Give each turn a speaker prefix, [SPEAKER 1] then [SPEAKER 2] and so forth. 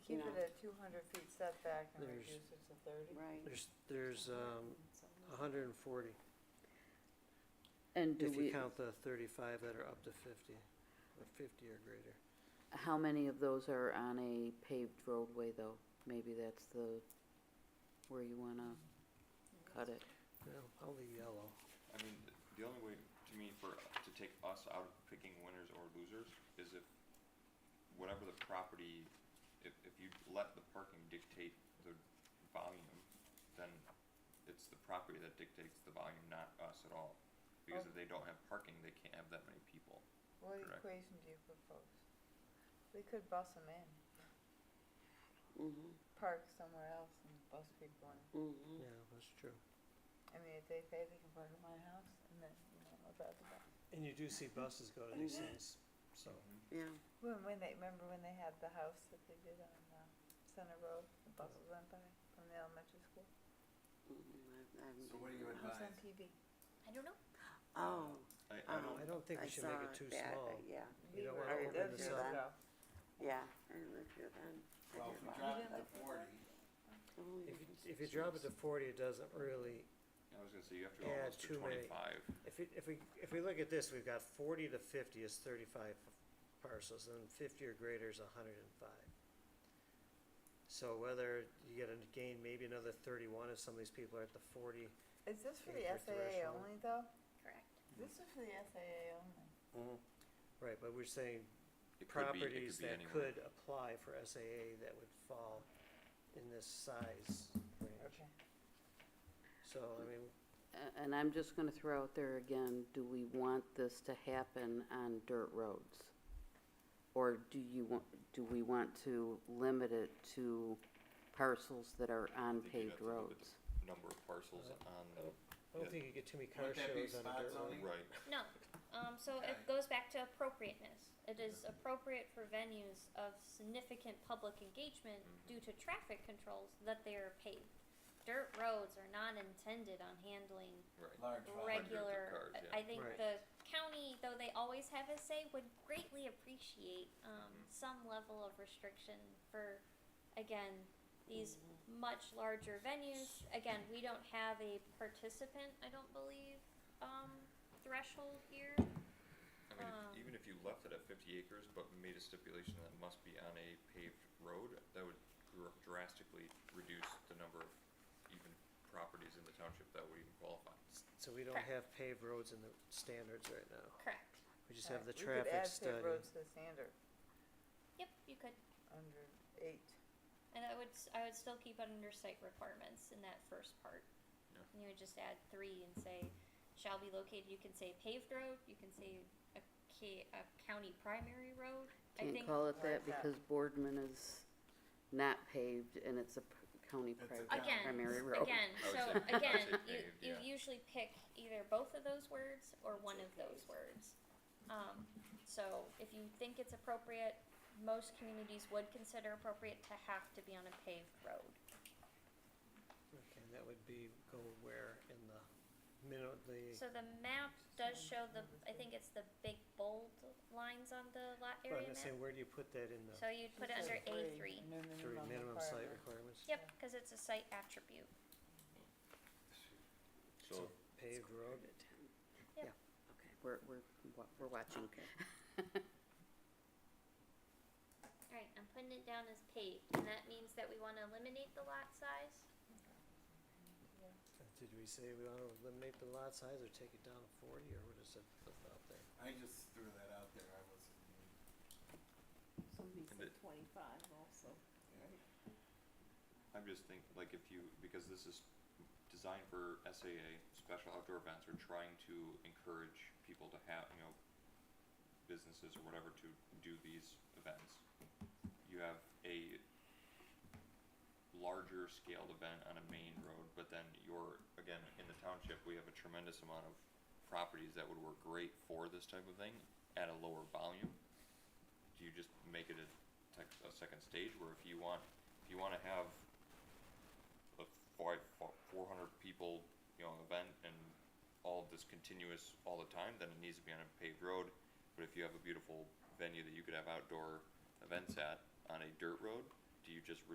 [SPEAKER 1] two hundred feet setback and
[SPEAKER 2] There's-
[SPEAKER 1] reduce it to thirty?
[SPEAKER 3] right.
[SPEAKER 2] There's, there's, um, a hundred and forty,
[SPEAKER 4] And do
[SPEAKER 2] if you
[SPEAKER 4] we,
[SPEAKER 2] count the thirty-five that are up to fifty, or fifty or greater.
[SPEAKER 4] how many of those are on a paved roadway, though? Maybe that's the, where you wanna cut it.
[SPEAKER 2] Well, I'll leave yellow.
[SPEAKER 5] I mean, th- the only way, to me, for, to take us out of picking winners or losers is if whatever the property, if, if you let the parking dictate the volume, then it's the property that dictates the volume, not us at all. Because
[SPEAKER 2] Oh.
[SPEAKER 5] if they don't have parking, they can't have that many people.
[SPEAKER 1] What
[SPEAKER 5] Correct.
[SPEAKER 1] equation do you propose? We could bus them in,
[SPEAKER 3] Mhm,
[SPEAKER 1] park somewhere else and bus people in.
[SPEAKER 2] uh,
[SPEAKER 3] mhm.
[SPEAKER 2] Yeah, that's true.
[SPEAKER 1] I mean, if they pay, they can park at my house and then, you know, about the bus.
[SPEAKER 6] And you do see buses go to these things, so.
[SPEAKER 3] Yeah,
[SPEAKER 1] When, when they, remember when they had the house that they did on, uh, Center Road, the buses went by from the elementary school?
[SPEAKER 3] mhm, I- I haven't
[SPEAKER 7] So what do
[SPEAKER 3] been
[SPEAKER 7] you
[SPEAKER 3] there.
[SPEAKER 1] It was on
[SPEAKER 7] advise?
[SPEAKER 1] TV.
[SPEAKER 8] I don't know.
[SPEAKER 3] Oh,
[SPEAKER 5] I, I
[SPEAKER 3] Um,
[SPEAKER 5] don't,
[SPEAKER 2] I don't think
[SPEAKER 3] I
[SPEAKER 2] we should make
[SPEAKER 3] saw
[SPEAKER 2] it too
[SPEAKER 3] that,
[SPEAKER 2] small.
[SPEAKER 3] uh, yeah,
[SPEAKER 2] You
[SPEAKER 1] We
[SPEAKER 2] don't
[SPEAKER 1] were-
[SPEAKER 2] wanna
[SPEAKER 1] I
[SPEAKER 3] open
[SPEAKER 1] lived
[SPEAKER 3] this
[SPEAKER 1] here
[SPEAKER 3] up.
[SPEAKER 1] though.
[SPEAKER 3] yeah, I lived here then. I
[SPEAKER 7] Well,
[SPEAKER 3] did Oh,
[SPEAKER 7] if we
[SPEAKER 3] walk
[SPEAKER 7] drop it
[SPEAKER 3] up.
[SPEAKER 7] to forty,
[SPEAKER 3] Only
[SPEAKER 2] If you,
[SPEAKER 3] difference
[SPEAKER 2] if you
[SPEAKER 3] is-
[SPEAKER 2] drop it to forty, it doesn't really,
[SPEAKER 5] I was gonna say, you have to go
[SPEAKER 2] Yeah,
[SPEAKER 5] almost to
[SPEAKER 2] too many.
[SPEAKER 5] twenty-five.
[SPEAKER 2] if you, if we, if we look at this, we've got forty to fifty is thirty-five parcels, and fifty or greater is hundred and five. So whether you get a gain, maybe another thirty-one if some of these people are at the forty,
[SPEAKER 1] Is this for the
[SPEAKER 2] Acre
[SPEAKER 1] SAA
[SPEAKER 2] threshold.
[SPEAKER 1] only though?
[SPEAKER 8] Correct.
[SPEAKER 1] This is for the SAA only.
[SPEAKER 2] right, but we're saying
[SPEAKER 5] It could be, it
[SPEAKER 2] properties
[SPEAKER 5] could be
[SPEAKER 2] that
[SPEAKER 5] anywhere.
[SPEAKER 2] could apply for SAA that would fall in this size range.
[SPEAKER 1] Okay.
[SPEAKER 2] So, I mean,
[SPEAKER 4] A- And I'm just gonna throw out there again, do we want this to happen on dirt roads? Or do you want, do we want to limit it to parcels that are on
[SPEAKER 5] I think you'd have
[SPEAKER 4] paved
[SPEAKER 5] to look at the
[SPEAKER 4] roads?
[SPEAKER 5] Number of parcels
[SPEAKER 2] Uh,
[SPEAKER 5] on
[SPEAKER 2] I
[SPEAKER 5] the,
[SPEAKER 2] don't
[SPEAKER 5] Yeah.
[SPEAKER 2] think you get too many car
[SPEAKER 7] Wouldn't that be
[SPEAKER 2] shows on a
[SPEAKER 7] spot
[SPEAKER 2] dirt road.
[SPEAKER 7] zoning?
[SPEAKER 5] right,
[SPEAKER 8] No. Um, so it
[SPEAKER 7] Okay.
[SPEAKER 8] goes back to appropriateness. It is appropriate for venues of significant public engagement due to traffic controls that they are paved. Dirt roads are not intended on handling
[SPEAKER 5] right.
[SPEAKER 7] large volume.
[SPEAKER 5] Hundreds of
[SPEAKER 8] regular.
[SPEAKER 5] cars,
[SPEAKER 8] I I think
[SPEAKER 2] Right.
[SPEAKER 8] the county, though they always have a say, would greatly appreciate um,
[SPEAKER 5] Mhm.
[SPEAKER 8] some level of restriction for, again, these much larger venues. Again, we don't have a participant, I don't believe, um, threshold here.
[SPEAKER 5] I mean,
[SPEAKER 8] Um,
[SPEAKER 5] if- even if you left it at fifty acres, but made a stipulation that it must be on a paved road, that would dr- drastically reduce the number of even properties in the township that would even qualify.
[SPEAKER 2] So we don't
[SPEAKER 8] Correct.
[SPEAKER 2] have paved roads in the standards right now.
[SPEAKER 8] Correct.
[SPEAKER 2] We just have the
[SPEAKER 1] Alright,
[SPEAKER 2] traffic
[SPEAKER 1] We could add paved
[SPEAKER 2] study.
[SPEAKER 1] roads to the standard
[SPEAKER 8] Yep, you could,
[SPEAKER 1] under eight.
[SPEAKER 8] and I would, s- I would still keep it under site requirements in that first part.
[SPEAKER 5] Yeah.
[SPEAKER 8] And you would just add three and say, shall be located, you can say paved road, you can say a ca- a county primary road. I
[SPEAKER 4] Can't
[SPEAKER 8] think-
[SPEAKER 4] call it
[SPEAKER 1] Like
[SPEAKER 4] that
[SPEAKER 1] that.
[SPEAKER 4] because Boardman is not paved and it's a p- county
[SPEAKER 7] It's a
[SPEAKER 4] pri-
[SPEAKER 7] county.
[SPEAKER 8] Again,
[SPEAKER 4] primary road.
[SPEAKER 8] Again,
[SPEAKER 5] I would
[SPEAKER 8] so
[SPEAKER 5] say- I would
[SPEAKER 8] again,
[SPEAKER 5] say
[SPEAKER 8] you,
[SPEAKER 5] paved,
[SPEAKER 8] you
[SPEAKER 5] yeah.
[SPEAKER 8] usually pick either both of those words or one of those words. Um, so if you think it's appropriate, most communities would consider appropriate to have to be on a paved road.
[SPEAKER 2] Okay, that would be, go where in the minute, the,
[SPEAKER 8] So the map does show the, I think it's the big bold lines on the lot
[SPEAKER 2] well, I'm
[SPEAKER 8] area
[SPEAKER 2] gonna say,
[SPEAKER 8] map.
[SPEAKER 2] where do you put that in the
[SPEAKER 8] So you'd put it under A three.
[SPEAKER 2] three minimum site requirements?
[SPEAKER 8] Yep, cause it's a site attribute.
[SPEAKER 5] So
[SPEAKER 2] Paved road,
[SPEAKER 4] Okay, We're, we're, wa- we're watching.
[SPEAKER 8] Alright, I'm putting it down as paved, and that means that we wanna eliminate the lot size?
[SPEAKER 2] did we say we wanna eliminate the lot size or take it down to forty, or what is it about there?
[SPEAKER 7] I just threw that out there, I wasn't,
[SPEAKER 3] Somebody
[SPEAKER 5] And said it-
[SPEAKER 3] twenty-five also.
[SPEAKER 7] yeah.
[SPEAKER 5] I'm just thinking, like, if you, because this is designed for SAA, special outdoor events, or trying to encourage people to have, you know, businesses or whatever to do these events. You have a larger scaled event on a main road, but then you're, again, in the township, we have a tremendous amount of properties that would work great for this type of thing at a lower volume. Do you just make it a tech, a second stage where if you want, if you wanna have a five, four hundred people, you know, event and all of this continuous all the time, then it needs to be on a paved road. But if you have a beautiful venue that you could have outdoor events at on a dirt road, do you just